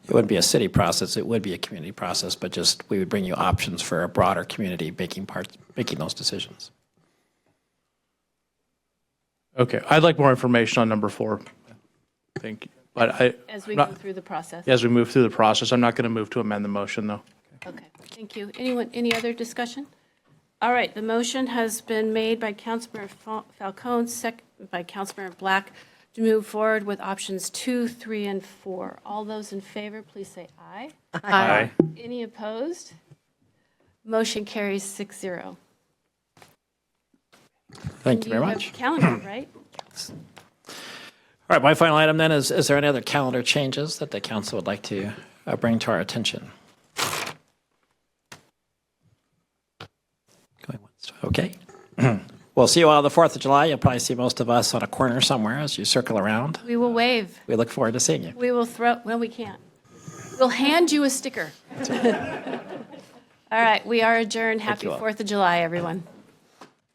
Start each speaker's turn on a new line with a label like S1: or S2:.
S1: it wouldn't be a city process, it would be a community process, but just, we would bring you options for a broader community making parts, making those decisions.
S2: Okay, I'd like more information on number four. Thank you. But I,
S3: As we
S2: not-
S3: go through the process?
S2: as we move through the process, I'm not going to move to amend the motion, though.
S3: Okay, thank you. Anyone, any other discussion? All right, the motion has been made by Councilmember Fal- Falcone, sec, by Councilmember Black, to move forward with options two, three, and four. All those in favor, please say aye.
S2: Aye.
S3: Any opposed? Motion carries six zero.
S1: Thank you very much.
S3: have calendar, right?
S1: All right, my final item then is, is there any other calendar changes that the council would like to uh, bring to our attention? Going once, Okay. We'll see you all on the 4th of July. You'll probably see most of us on a corner somewhere as you circle around.
S3: We will waive.
S1: We look forward to seeing you.
S3: We will throw, well, we can't. We'll hand you a sticker. All right, we are adjourned. Happy
S1: you all.
S3: Fourth of July, everyone.